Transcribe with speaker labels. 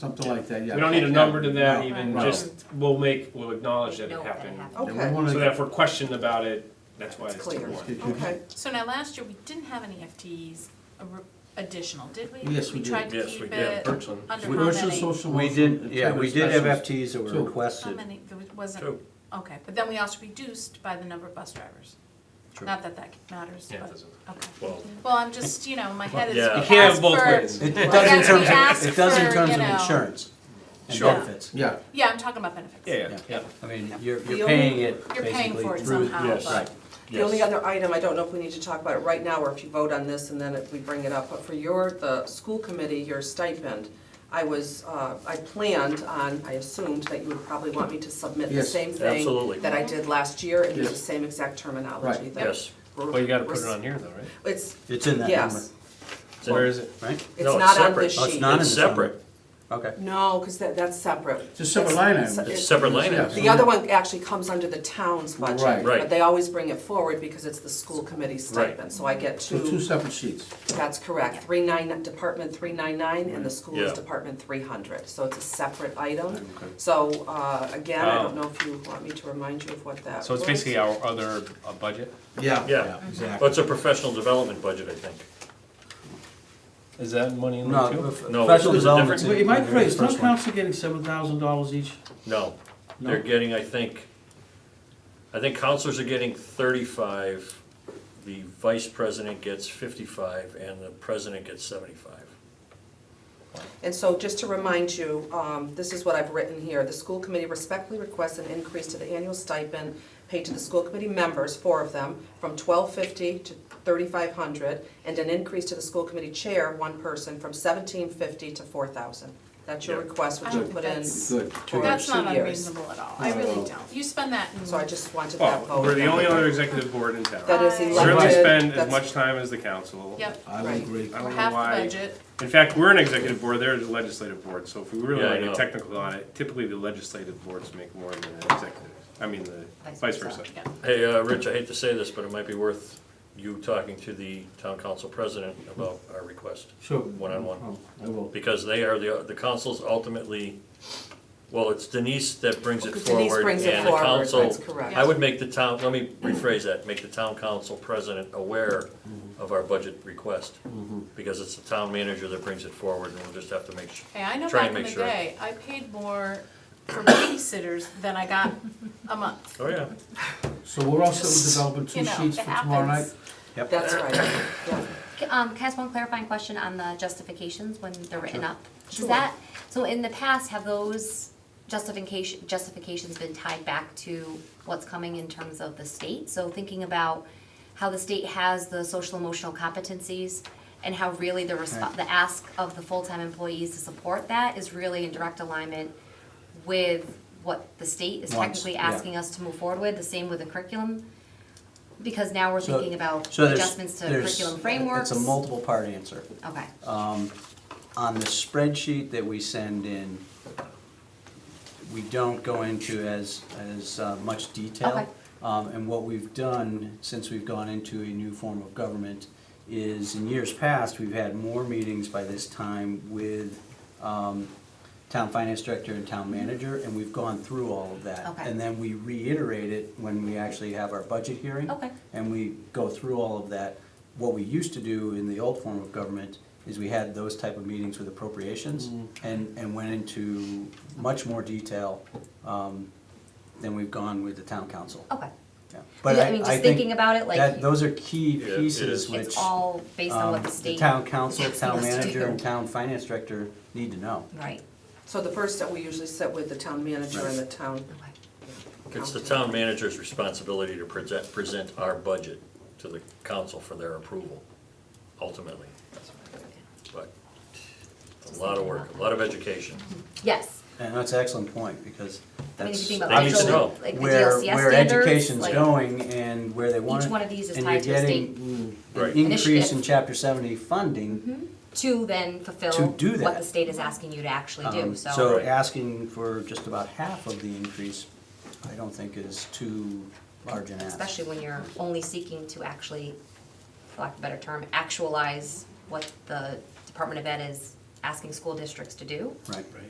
Speaker 1: Something like that, yeah.
Speaker 2: We don't need a number to that
Speaker 1: No,
Speaker 2: even,
Speaker 1: no.
Speaker 2: just, we'll make, we'll acknowledge that it
Speaker 3: Note
Speaker 2: happened.
Speaker 1: And we
Speaker 4: Okay.
Speaker 1: wanna-
Speaker 2: So that if we're questioned about it, that's why
Speaker 4: It's
Speaker 2: it's
Speaker 4: clear.
Speaker 2: two one.
Speaker 1: Okay.
Speaker 4: Okay,
Speaker 3: So now, last year, we didn't have any FTEs a r- additional, did we?
Speaker 1: Yes, we did.
Speaker 3: tried to
Speaker 2: Yes, we
Speaker 3: keep
Speaker 2: did,
Speaker 3: it
Speaker 2: Birchland.
Speaker 3: under how
Speaker 1: First is
Speaker 3: many?
Speaker 1: social
Speaker 5: We
Speaker 1: worker,
Speaker 5: did, yeah,
Speaker 1: employment
Speaker 5: we did have
Speaker 1: specialist.
Speaker 5: FTEs that
Speaker 1: Two.
Speaker 5: were
Speaker 3: How
Speaker 5: requested.
Speaker 3: many, there was-
Speaker 2: Two.
Speaker 3: wasn't, okay, but then we also reduced by the number of bus drivers.
Speaker 5: True.
Speaker 3: Not that that matters,
Speaker 2: Yeah, it
Speaker 3: but,
Speaker 2: doesn't-
Speaker 3: okay.
Speaker 2: Well,
Speaker 3: Well, I'm just, you know, my head is.
Speaker 2: Yeah.
Speaker 3: we
Speaker 2: You can't have
Speaker 3: asked
Speaker 2: both
Speaker 3: for-
Speaker 2: ways.
Speaker 5: It,
Speaker 3: Well,
Speaker 5: it does in
Speaker 3: that's
Speaker 5: terms
Speaker 3: what we
Speaker 5: of,
Speaker 3: asked
Speaker 5: it does
Speaker 3: for,
Speaker 5: in terms
Speaker 3: you
Speaker 5: of
Speaker 3: know.
Speaker 5: insurance and
Speaker 2: Sure.
Speaker 5: benefits.
Speaker 1: Yeah,
Speaker 3: Yeah, I'm talking about benefits.
Speaker 2: yeah, yeah.
Speaker 5: I mean, you're,
Speaker 4: The
Speaker 5: you're
Speaker 4: only-
Speaker 5: paying it
Speaker 3: You're paying for
Speaker 5: basically
Speaker 3: it
Speaker 5: through.
Speaker 3: somehow,
Speaker 2: yes.
Speaker 3: but,
Speaker 4: the only other item, I don't know if we need to talk about it right now, or if you vote on this and then if we bring it up, but for your, the school committee, your stipend, I was, uh, I planned on, I assumed that you would probably want me to submit the
Speaker 1: Yes,
Speaker 4: same thing
Speaker 5: absolutely.
Speaker 4: that I did last year, and use the
Speaker 1: Yes.
Speaker 4: same exact terminology
Speaker 1: Right.
Speaker 4: that.
Speaker 5: Yes.
Speaker 4: we're-
Speaker 2: Well, you gotta put it on here though, right?
Speaker 4: It's,
Speaker 5: It's in that number,
Speaker 4: yes,
Speaker 2: Where is it?
Speaker 5: right?
Speaker 4: it's
Speaker 6: No, it's
Speaker 4: not on
Speaker 6: separate.
Speaker 4: this sheet.
Speaker 5: Oh, it's not in the.
Speaker 6: It's separate.
Speaker 5: Okay.
Speaker 4: No, because that, that's separate.
Speaker 1: it's a separate line item.
Speaker 4: It's-
Speaker 6: It's separate line
Speaker 1: Yeah.
Speaker 6: items.
Speaker 4: The other one actually comes under the town's budget.
Speaker 1: Right.
Speaker 6: Right.
Speaker 4: But they always bring it forward because it's the school committee stipend, so I get
Speaker 1: So two
Speaker 4: two,
Speaker 1: separate sheets.
Speaker 4: that's correct, three nine, Department three nine nine, and the school is
Speaker 6: Yeah.
Speaker 4: Department three hundred, so it's a separate item. So, uh, again, I don't know if you want me to remind you of what that was.
Speaker 2: So it's basically our other uh, budget.
Speaker 1: Yeah.
Speaker 6: Yeah,
Speaker 5: Exactly.
Speaker 6: well, it's a professional development budget, I think.
Speaker 2: Is that money in there
Speaker 5: No,
Speaker 2: too?
Speaker 5: f- professional
Speaker 6: No, it's a different-
Speaker 5: development.
Speaker 1: Wait, am I crazy, is town council getting seven thousand dollars each?
Speaker 6: No,
Speaker 1: No.
Speaker 6: they're getting, I think, I think counselors are getting thirty-five, the vice president gets fifty-five, and the president gets seventy-five.
Speaker 4: And so just to remind you, um, this is what I've written here. The school committee respectfully requests an increase to the annual stipend paid to the school committee members, four of them, from twelve fifty to thirty-five hundred, and an increase to the school committee chair, one person, from seventeen fifty to four thousand. That's your
Speaker 6: Yeah.
Speaker 4: request, which you
Speaker 3: I-
Speaker 4: put in
Speaker 3: that's-
Speaker 1: Good.
Speaker 4: for
Speaker 3: that's
Speaker 4: two
Speaker 3: not
Speaker 4: years.
Speaker 3: unreasonable at all, I
Speaker 1: No.
Speaker 3: really don't. You spend that in.
Speaker 4: So I just wanted that
Speaker 2: Well,
Speaker 4: vote.
Speaker 2: Oh, we're the only other executive board in town.
Speaker 4: That is
Speaker 3: Certainly
Speaker 4: elected.
Speaker 2: Certainly spend as
Speaker 4: that's-
Speaker 2: much time as the council.
Speaker 3: Yep,
Speaker 1: I would
Speaker 4: Right.
Speaker 1: agree.
Speaker 2: I don't
Speaker 3: we're
Speaker 2: know
Speaker 3: half the
Speaker 2: why-
Speaker 3: budget.
Speaker 2: In fact, we're an executive board, they're the legislative board, so if we really
Speaker 6: Yeah, I
Speaker 2: want to get
Speaker 6: know.
Speaker 2: technical on it, typically the legislative boards make more than the executive, I mean, the vice versa.
Speaker 3: Yeah.
Speaker 6: Hey, uh, Rich, I hate to say this, but it might be worth you talking to the town council president about our request.
Speaker 1: Sure. Um,
Speaker 6: One-on-one.
Speaker 1: I will.
Speaker 6: Because they are, the, the council's ultimately, well, it's Denise that brings it
Speaker 4: Denise
Speaker 6: forward.
Speaker 4: brings it
Speaker 6: and the
Speaker 4: forward,
Speaker 6: council-
Speaker 4: that's correct.
Speaker 6: I would make the town, let me rephrase that, make the town council president aware of our budget request. Because it's the town manager that brings it forward, and we'll just have to make sure.
Speaker 3: Hey, I know
Speaker 6: Try
Speaker 3: back
Speaker 6: and
Speaker 3: in
Speaker 6: make
Speaker 3: the
Speaker 6: sure.
Speaker 3: day, I paid more for babysitters than I got a month.
Speaker 6: Oh, yeah.
Speaker 1: So we're also developing
Speaker 3: You
Speaker 1: two
Speaker 3: know,
Speaker 1: sheets
Speaker 3: it
Speaker 1: for tomorrow night?
Speaker 3: happens.
Speaker 4: That's right, yeah.
Speaker 7: C- Um, can I ask one clarifying question on the justifications when they're written up? Is that, so in the past, have those justification, justifications been tied back to what's coming in terms of the state? So thinking about how the state has the social emotional competencies and how really the resp-
Speaker 5: Right.
Speaker 7: the ask of the full-time employees to support that is really in direct alignment with what the state is
Speaker 5: Wants,
Speaker 7: technically
Speaker 5: yeah.
Speaker 7: asking us to move forward with, the same with the curriculum. Because now we're
Speaker 5: So-
Speaker 7: thinking about
Speaker 5: so there's-
Speaker 7: adjustments to
Speaker 5: there's-
Speaker 7: curriculum frameworks.
Speaker 5: It's a uh, multiple-part answer.
Speaker 7: Okay.
Speaker 5: on the spreadsheet that we send in, we don't go into as, as uh, much
Speaker 7: Okay.
Speaker 5: detail. Um, And what we've done, since we've gone into a new form of government, is in years past, we've had more meetings by this time with um, town finance director and town manager, and we've gone through all of that.
Speaker 7: Okay.
Speaker 5: And then we reiterate it when we actually have our budget hearing.
Speaker 7: Okay.
Speaker 5: And we go through all of that. What we used to do in the old form of government is we had those type of meetings with appropriations and, and went into much more detail um, than we've gone with the town council.
Speaker 7: Okay.
Speaker 5: Yeah. But
Speaker 7: But I, mean, just
Speaker 5: think
Speaker 7: thinking about it, like
Speaker 5: that, those are key
Speaker 6: Yeah, it
Speaker 5: pieces
Speaker 6: is.
Speaker 5: which.
Speaker 7: it's all based on
Speaker 5: um,
Speaker 7: what the state.
Speaker 5: town council, town
Speaker 7: us to
Speaker 5: manager,
Speaker 7: do.
Speaker 5: and town finance director need to know.
Speaker 7: Right.
Speaker 4: So the first step, we usually sit with the town manager and the town
Speaker 7: Okay.
Speaker 6: It's the
Speaker 4: council.
Speaker 6: town manager's responsibility to present, present our budget to the council for their approval, ultimately. But a lot of work, a lot of education.
Speaker 3: Mm-hmm.
Speaker 7: Yes.
Speaker 5: And that's an excellent point, because
Speaker 7: I mean, if you
Speaker 5: that's
Speaker 7: think about
Speaker 6: They need to
Speaker 7: actual,
Speaker 6: know.
Speaker 7: like the
Speaker 5: where,
Speaker 7: DLCS
Speaker 5: where
Speaker 7: standards,
Speaker 5: education's
Speaker 7: like,
Speaker 5: going and where they want it.
Speaker 7: Each one of these is
Speaker 5: and
Speaker 7: tied to
Speaker 5: you're
Speaker 7: a
Speaker 5: getting
Speaker 7: state
Speaker 6: Right.
Speaker 5: An increase in
Speaker 7: initiative. Mm-hmm.
Speaker 5: chapter seventy funding.
Speaker 7: to then fulfill
Speaker 5: To do
Speaker 7: what
Speaker 5: that.
Speaker 7: the state is asking you to actually do.
Speaker 5: um,
Speaker 7: So,
Speaker 5: So asking for just about half of the increase, I don't think is too large an ask.
Speaker 7: especially when you're only seeking to actually, for lack of a better term, actualize what the Department of Ed is asking school districts to do.
Speaker 5: Right.